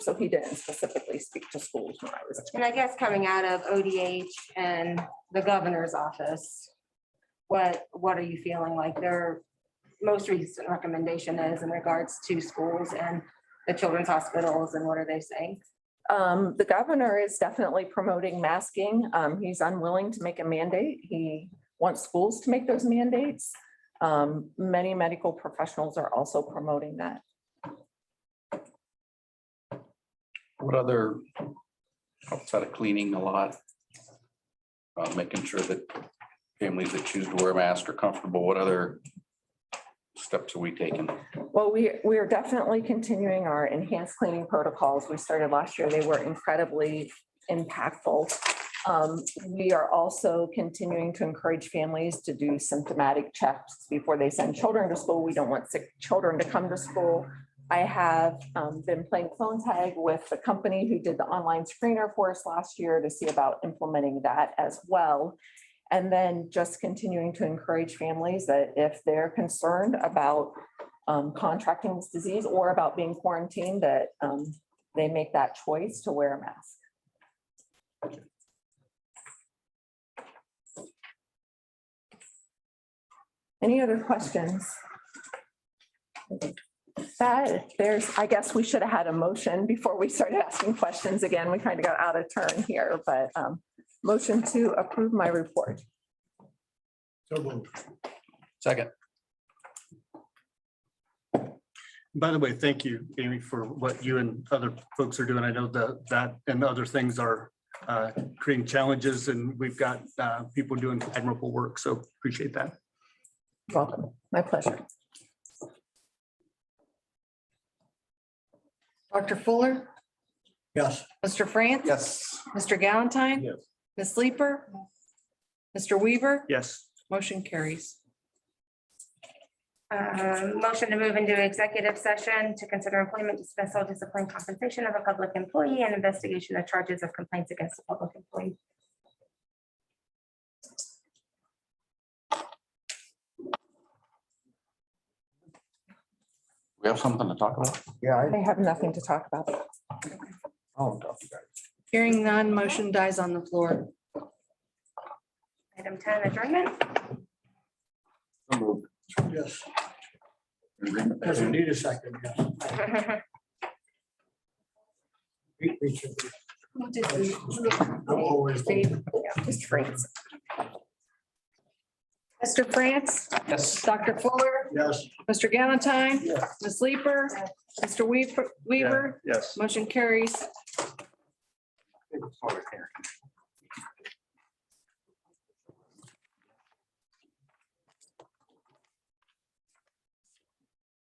So he didn't specifically speak to schools when I was. And I guess coming out of ODH and the governor's office, what, what are you feeling like their most recent recommendation is in regards to schools and the children's hospitals and what are they saying? Um, the governor is definitely promoting masking. Um, he's unwilling to make a mandate. He wants schools to make those mandates. Um, many medical professionals are also promoting that. What other, outside of cleaning a lot? uh, Making sure that families that choose to wear a mask are comfortable, what other steps are we taking? Well, we, we are definitely continuing our enhanced cleaning protocols. We started last year. They were incredibly impactful. Um, We are also continuing to encourage families to do symptomatic checks before they send children to school. We don't want sick children to come to school. I have um, been playing phone tag with the company who did the online screener for us last year to see about implementing that as well. And then just continuing to encourage families that if they're concerned about um, contracting this disease or about being quarantined, that um, they make that choice to wear a mask. Any other questions? That, there's, I guess we should have had a motion before we started asking questions again. We kind of got out of turn here, but um, motion to approve my report. So moved. Second, By the way, thank you, Amy, for what you and other folks are doing. I know that that and other things are uh, creating challenges and we've got uh, people doing admirable work. So appreciate that. Welcome. My pleasure. Dr. Fuller, Yes. Mr. France. Yes. Mr. Galantine. Yes. Ms. Leeper. Mr. Weaver, Yes. motion carries. Um, Motion to move into executive session to consider employment dismissal, discipline, compensation of a public employee and investigation of charges of complaints against a public employee. we have something to talk about? I have nothing to talk about. Hearing none, motion dies on the floor. Item ten, adjournment. Yes, yes, we need a second, yes. We- we should be- I'm always- Just freeze. Mr. France, Yes. Dr. Fuller, Yes. Mr. Galantine, Yes. Ms. Leeper, Mr. Weaver, Weaver, Yes. motion carries.